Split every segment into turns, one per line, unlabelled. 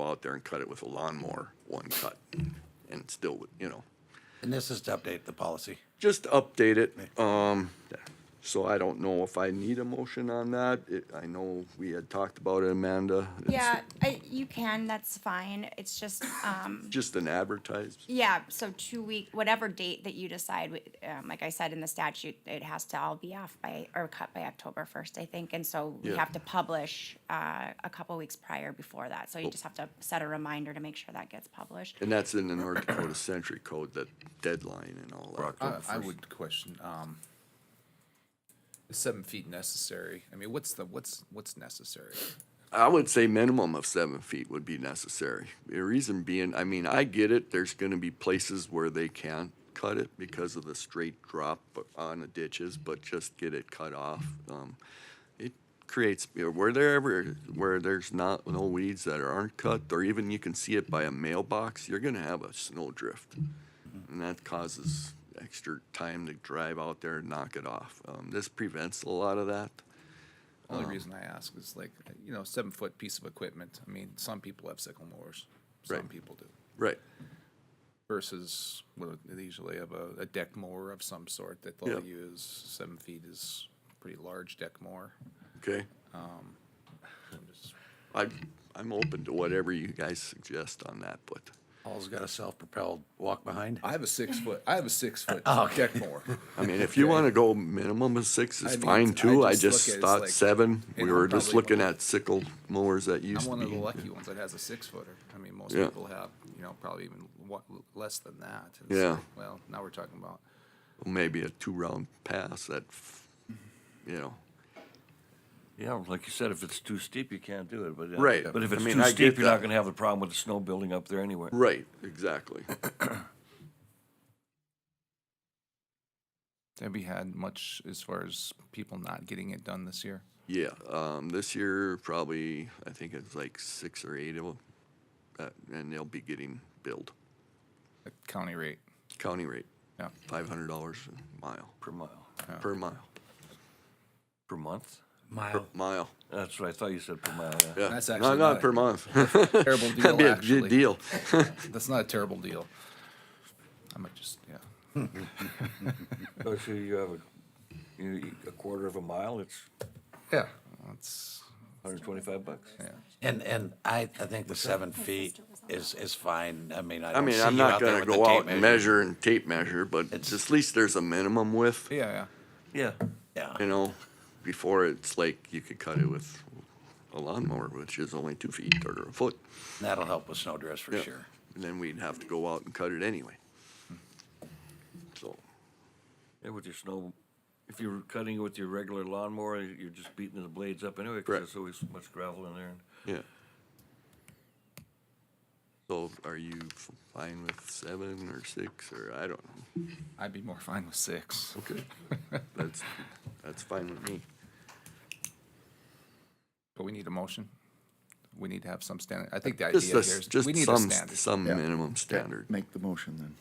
go out there and cut it with a lawnmower, one cut, and it still would, you know,
And this is to update the policy.
just update it. Um, so I don't know if I need a motion on that. It, I know we had talked about it, Amanda. It's
Yeah, I, you can, that's fine. It's just, um,
Just an advertised,
yeah, so two week, whatever date that you decide, wi- um, like I said in the statute, it has to all be off by, or cut by October first, I think. And so we
Yeah.
have to publish, uh, a couple weeks prior before that. So
Oh.
you just have to set a reminder to make sure that gets published.
and that's in the North Dakota Century Code, that deadline and all that.
I, I would question, um, is seven feet necessary? I mean, what's the, what's, what's necessary?
I would say minimum of seven feet would be necessary. The reason being, I mean, I get it, there's gonna be places where they can't cut it because of the straight drop on the ditches, but just get it cut off. Um, It creates, you know, where there ever, where there's not, no weeds that aren't cut, or even you can see it by a mailbox, you're gonna have a snow drift. And that causes extra time to drive out there and knock it off. Um, This prevents a lot of that.
Only reason I ask is like, you know, seven foot piece of equipment. I mean, some people have sickle mowers, some
Right.
people do.
Right.
Versus, well, they usually have a, a deck mower of some sort that they'll
Yeah.
use. Seven feet is pretty large deck mower.
Okay.
Um, I'm just-
I, I'm open to whatever you guys suggest on that, but
Paul's got a self-propelled walk behind.
I have a six foot, I have a six foot
Oh, okay.
deck mower.
I mean, if you want to go minimum of six,
I
it's
mean,
fine
I
too. I
just
just
look at it's
thought
like-
seven. We
and
were
I'm
just
probably
looking
one-
at sickle mowers that
I'm
used to
one of the
be.
lucky ones that has a six footer. I mean, most
Yeah.
people have, you know, probably even wa- less than that. It's
Yeah.
like, Well, now we're talking about,
Maybe a two-round pass that, f- you know,
Yeah, like you said, if it's too steep, you can't do it, but. uh,
Right.
But if
I
it's
mean,
too
I get
steep, you're
that.
not gonna have the problem with the snow building up there anyway.
right, exactly.
have you had much as far as people not getting it done this year?
Yeah, um, this year probably, I think it's like six or eight of them. uh, And they'll be getting billed
At county rate?
county rate,
Yeah.
five hundred dollars a mile,
Per mile,
per mile,
per month?
Mile.
mile.
That's what I thought you said per mile, yeah.
Yeah,
That's
not,
actually
not
not-
per month.
Terrible
That'd be
deal,
a good
actually.
deal.
That's not a terrible deal. I might just, yeah.
Oh, So you have a, you, a quarter of a mile, it's
Yeah, that's,
hundred and twenty-five bucks?
yeah.
And, and I, I think the seven feet is, is fine. I mean, I
I
don't see
mean,
you
I'm
out
not
there
gonna
with the
go
tape
out and
measure.
measure and tape measure, but
It's-
at least there's a minimum width,
Yeah, yeah.
Yeah,
Yeah,
you know, before it's like you could cut it with a lawnmower, which is only two feet or a foot.
that'll help with snow drifts for
Yeah.
sure.
And then we'd have to go out and cut it anyway. So,
yeah, with your snow, if you're cutting it with your regular lawnmower, you're just beating the blades up anyway, cause
Correct.
there's always so much gravel in there.
yeah. So are you f- fine with seven or six or I don't know?
I'd be more fine with six.
Okay. That's, that's fine with me.
But we need a motion. We need to have some standard. I think the idea
Just
here
a,
is
s- just
we need a
some,
standard.
some
Yeah.
minimum
Okay,
standard.
Make the motion then.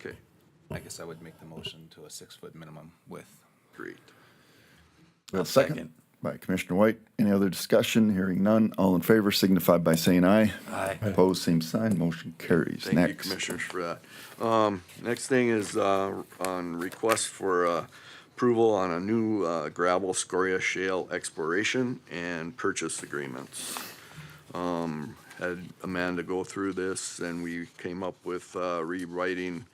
Okay,
I guess I would make the motion to a six foot minimum with
great.
We have a
second.
By Commissioner White. Any other discussion? Hearing none. All in favor signify by saying aye.
Aye.
Opposed, same sign. Motion carries.
Thank you,
Next.
Commissioners, for that. Um, Next thing is uh, on request for uh, approval on a new uh, gravel scoria shale exploration and purchase agreements. Um, Had Amanda go through this, and we came up with uh, rewriting,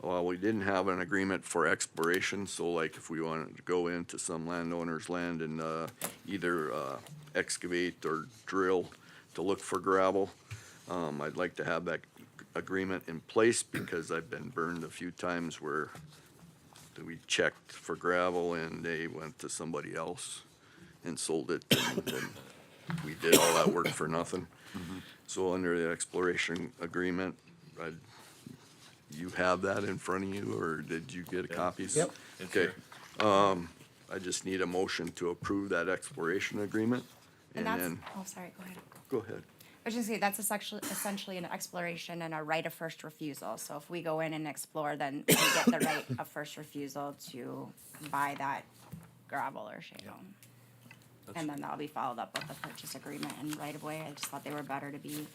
well, we didn't have an agreement for exploration, so like if we wanted to go into some landowner's land and uh, either uh, excavate or drill to look for gravel, um, I'd like to have that agreement in place because I've been burned a few times where we checked for gravel and they went to somebody else and sold it. and then We did all that work for nothing. So under the exploration agreement, I, you have that in front of you or did you get copies?
Yep.
It's
Okay,
here.
um, I just need a motion to approve that exploration agreement.
And
And
that's,
then,
oh, sorry, go ahead.
go ahead.
I was just gonna say, that's essentially, essentially an exploration and a right of first refusal. So if we go in and explore, then we get the right of first refusal to buy that gravel or shale. And then that'll be followed up with the purchase agreement and right of way. I just thought they were better to be